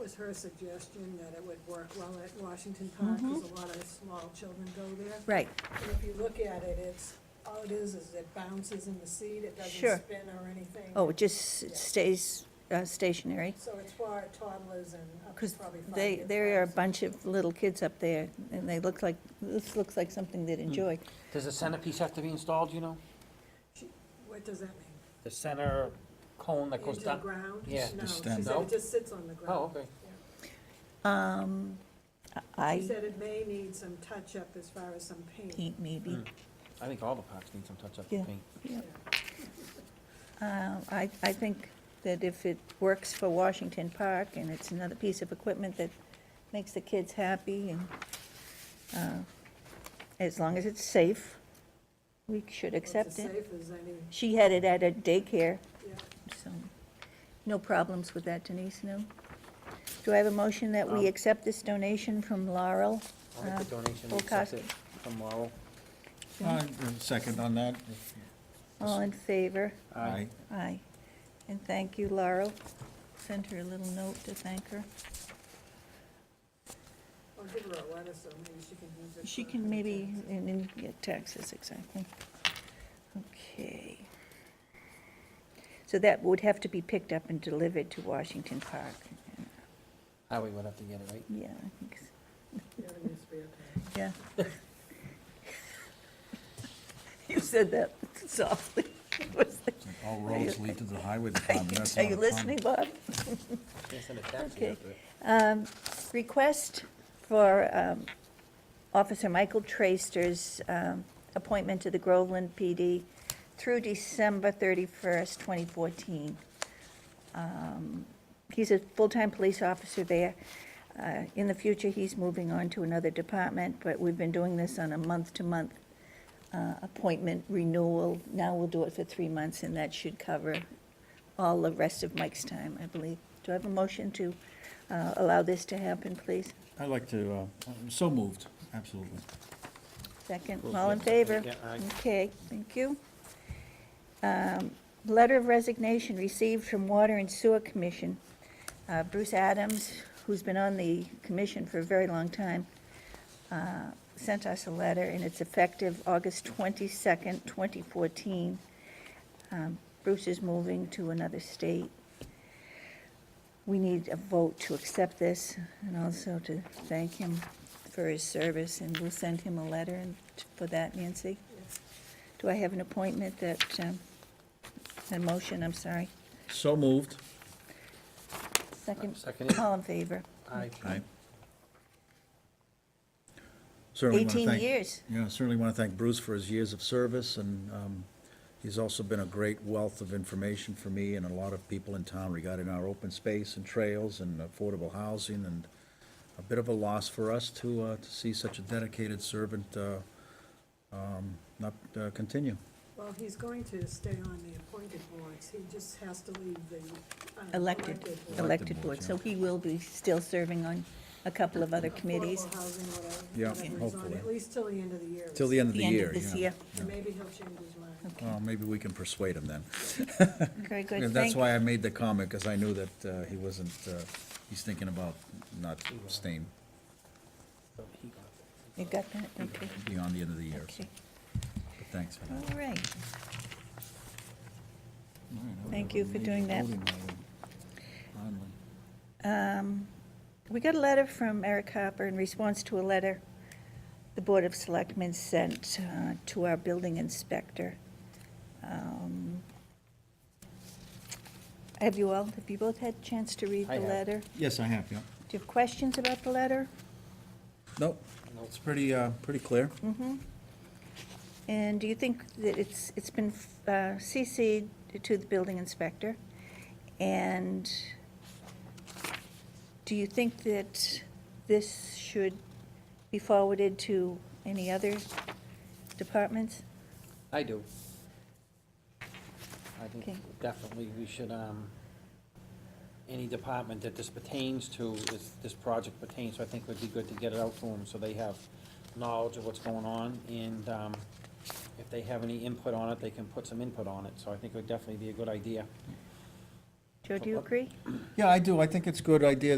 was her suggestion, that it would work well at Washington Park, Mm-hmm. because a lot of small children go there. Right, And if you look at it, it's, all it is, is it bounces in the seat, it Sure. doesn't spin or anything. oh, it just stays uh, stationary, So it's for toddlers and up to because probably five they, years there are a old. bunch of little kids up there, and they look like, this looks like something they'd enjoy. Does a centerpiece have to be installed, you know? What does that mean? The center cone that goes Into the down? ground? Yeah. No, The she stem. said No? it just sits on the ground. Oh, okay. Um, She I, said it may need some touch-up as far as some paint. eat maybe, Mm. I think all the parks need some touch-up Yeah. and paint. yeah. Uh, I, I think that if it works for Washington Park, and it's another piece of equipment that makes the kids happy, and, uh, as long as it's safe, we should accept It's it. as safe as any, She had it at a daycare, yeah. so no problems with that, Denise, no? Do I have a motion that we Um, accept this donation from Laurel? I'll make Uh, the donation, full we accept cost. it from Laurel. Yeah. I- Uh, Second on that. All in favor? Aye. Aye. And thank you, Laurel. Send her a little note to thank her. I'll give her a letter, so maybe she can use it. She for can her maybe, things. and then get taxes, exactly. Okay. So that would have to be picked up and delivered to Washington Park. Highway would have to get it, right? Yeah, I think so. Yeah, it needs to be okay. Yeah. You said that softly. It was like, All roads lead to the highway Are department. you- That's are not you a listening, comment. Bob? Can't send a taxi Okay. out there. Um, Request for um, Officer Michael Traster's um, appointment to the Groveland PD through December 31st, 2014. Um, He's a full-time police officer there. Uh, In the future, he's moving on to another department, but we've been doing this on a month-to-month uh, appointment renewal. Now we'll do it for three months, and that should cover all the rest of Mike's time, I believe. Do I have a motion to uh, allow this to happen, please? I'd like to, uh, I'm so moved, absolutely. Second, Close all in the- favor? yeah, aye. Okay, thank you. Um, Letter of resignation received from Water and Sewer Commission. Uh, Bruce Adams, who's been on the commission for a very long time, uh, sent us a letter, and it's effective August 22nd, 2014. Um, Bruce is moving to another state. We need a vote to accept this and also to thank him for his service, and we'll send him a letter and- for that, Nancy. Do I have an appointment that, um, a motion, I'm sorry, So moved. Uh, second? Seconded. All in favor? Aye. Aye. Certainly wanna 18 thank- years. Yeah, certainly want to thank Bruce for his years of service, and um, he's also been a great wealth of information for me and a lot of people in town regarding our open space and trails and affordable housing, and a bit of a loss for us to, uh, to see such a dedicated servant uh, um, not uh, continue. Well, he's going to stay on the appointed boards, he just has to leave the. uh, Elected, board. elected Elected board, board, so he will be still serving on a couple of other committees. Affordable housing, whatever, Yeah, whatever he's on, hopefully. At least till the end of the year. Till the end of the The end of year, yeah. this year. And Maybe he'll change his mind. Well, maybe we can persuade him then. Very Yeah, good, That's thank you. why I made the comment, because I knew that uh, he wasn't, uh, he's thinking about not staying So he got it. You got that, okay, beyond the end of the year. so- okay, But thanks for that. all right. Thank you for doing that. Um, We got a letter from Eric Harper in response to a letter the Board of Selectmen sent uh, to our building inspector. Um, Have you all, have you both had a chance to read I the have. letter? Yes, I have, yeah. Do you have questions about the letter? Nope, it's pretty, uh, pretty clear. Mm. And do you think that it's, it's been uh, CC'd to the building inspector? And do you think that this should be forwarded to any other departments? I do. I Okay. think definitely we should, um, any department that this pertains to, this, this project pertains, so I think it would be good to get it out to them, so they have knowledge of what's going on, and, um, if they have any input on it, they can put some input on it, so I think it would definitely be a good idea. Joe, do you agree? Yeah, I do, I think it's a good idea